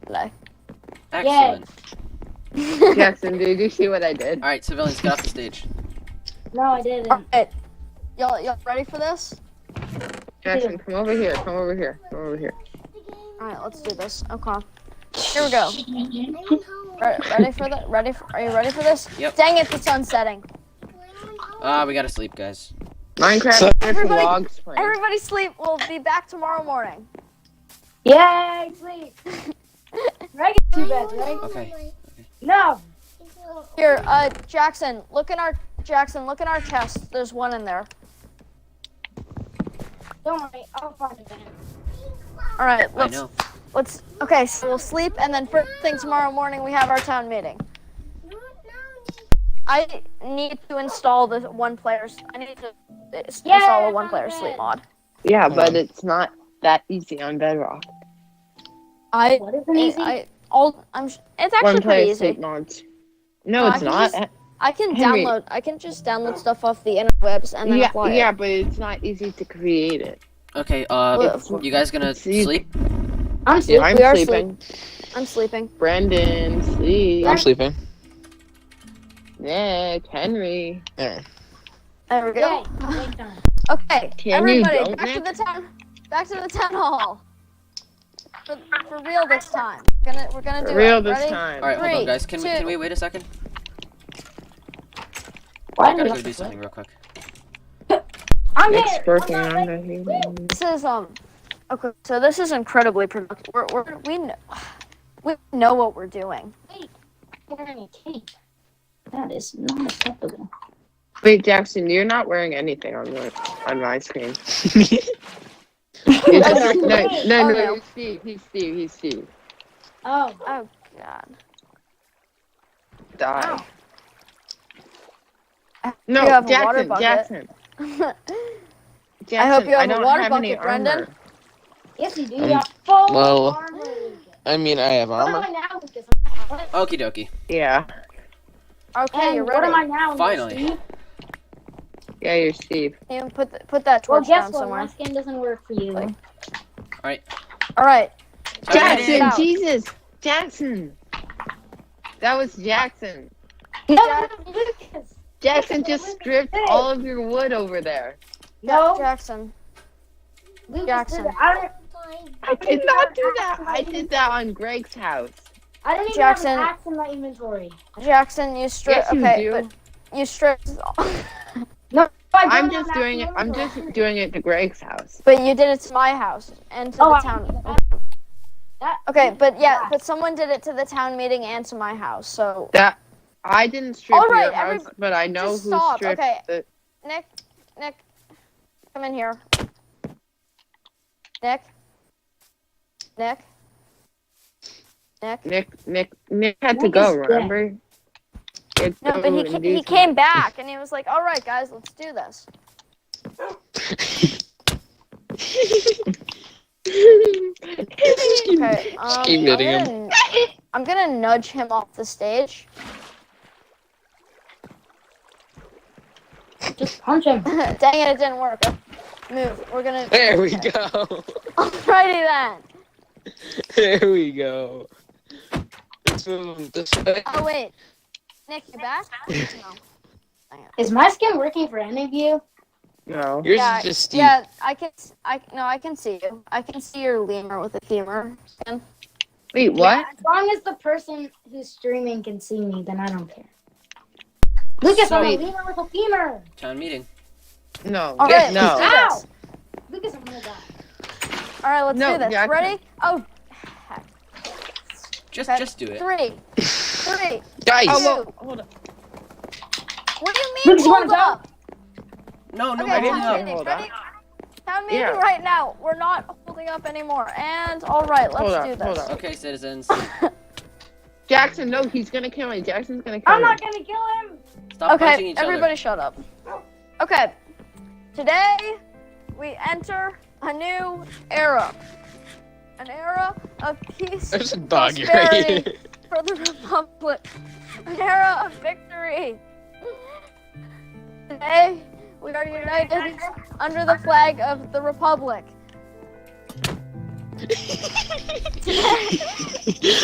though. Excellent. Jackson, did you see what I did? All right, civilians, get off the stage. No, I didn't. Alright. Y'all, y'all ready for this? Jackson, come over here. Come over here. Come over here. Alright, let's do this. Okay. Here we go. Re- ready for the ready for, are you ready for this? Yep. Dang it, the sun's setting. Ah, we gotta sleep, guys. Minecraft So- there's Everybody- log springs. Everybody sleep. We'll be back tomorrow morning. Yay, sleep. Right two beds, right? Okay. No. Here, uh Jackson, look in our Jackson, look in our chest. There's one in there. Don't worry, I'll find a bed. Alright, I let's know. let's okay, so we'll sleep and then first thing tomorrow morning we have our town meeting. I need to install the one player's I need to uh, s- Yay, install a one player I'm sleep in. mod. Yeah, but it's not that easy on Bedrock. I What is I, I all I'm sh- it's actually One pretty player easy. sleep mods. No, Uh, I it's can not. just- I can Henry. download. I can just download stuff off the interwebs and then yeah, apply yeah, it. but it's not easy to create it. Okay, uh, Well, you guys gonna Oh. See- sleep? I'm sleep- I'm we are sleeping. I'm sleeping. Brendan, sleep. I'm sleeping. Nick, Henry. There. There we go. Wake up. Okay, Can you everybody, don't, back to Nick? the town. Back to the town hall. For, for real this time. Gonna we're gonna do Real it. this Ready? time. All right, hold Three, on, guys. Can we two- can we wait a second? I Why gotta go did do you- something real quick. I'm here. Nick's working I'm not on ready. it. This is um. Okay, so this is incredibly productive. We're, we're we know, we know what we're doing. wearing a cape. That is not acceptable. Wait, Jackson, you're not wearing anything on the on my screen. That's no, no, great. no, Oh, no, no. he's Steve. He's Steve. He's Steve. Oh, Oh God. Die. Oh. You No, have a water Jackson, bucket. Jackson, you have Jackson. a don't water have any bucket, Brendan. armor. yes, you do. Um, You got full well, armor. I mean, I have What am armor. I now with this? I'm not- Okie dokie. Yeah, okay, And you're what ready. am I now? Finally. Steve? yeah, you're Steve. You put th- put that Well, torch guess down what? My somewhere. skin doesn't work for you. Like- All right. All right. Time Jack, to- sit Jackson, down. Jesus, Jackson. That was Jackson. No, Lucas. Jackson just stripped all of your wood over there. No, Jackson. Lucas Jackson. Did it. I don't. I did not do that. I did that on Greg's house. I don't even Jackson. have an axe in my inventory. Jackson, you stripped. Yes, you okay, do. but you stripped. I don't I'm have just an axe doing in it. my I'm inventory. just doing it to Greg's house. But you did it to my house and to Oh, the I- town. That- Okay, but yeah, Yeah. but someone did it to the town meeting and to my house. So That I didn't strip All right, your house, everyb- but I know who just stop. stripped Okay. the. Nick, Nick, come in here. Nick, Nick, Nick. Nick, Nick, Nick had to Nick go. is dead. Remember? He had to No, go but he and ca- do he came back and he was like, "All right, guys, let's do this." something. Okay, um, keep hitting I'm him. gonna, I'm gonna nudge him off the stage. Just punch him. Dang it, it didn't work. Move. We're gonna. There we go. Alrighty then. There we go. Let's move him this way. Oh wait, Nick, you back? No. Is my skin working for any of you? no. Yours Yeah, is just Steve. Yeah, I can. s- I no, I can see you. I can see your lemur with a femur. skin. Wait, what? As long as the person who's streaming can see me, then I don't care. Lucas, I'm a Sweet. lemur with a femur. Town meeting. No. All right, Ah! no. let's do this. Lucas, I'm gonna die. All right, let's No, do this. yeah, I can- Ready? Oh, Just Okay. just do it. three, three. Guys, Oh, well, hold on. What do you mean? Lucas, you wanna Hold go? up. No, Okay, no, we're I didn't town holding know. up. meeting. Hold Ready? Town meeting Yeah. right now. We're not holding up anymore. And all right, let's Hold on, do this. hold on. Okay, citizens, Jackson, no, he's gonna kill me. Jackson's gonna kill I'm me. not gonna kill him. stop punching okay, each everybody shut up. Okay, today we enter a new era. An era of peace there's a dog here. Prosperity. for the Republic. An era of victory. Today we are united under the flag of the Republic. Today.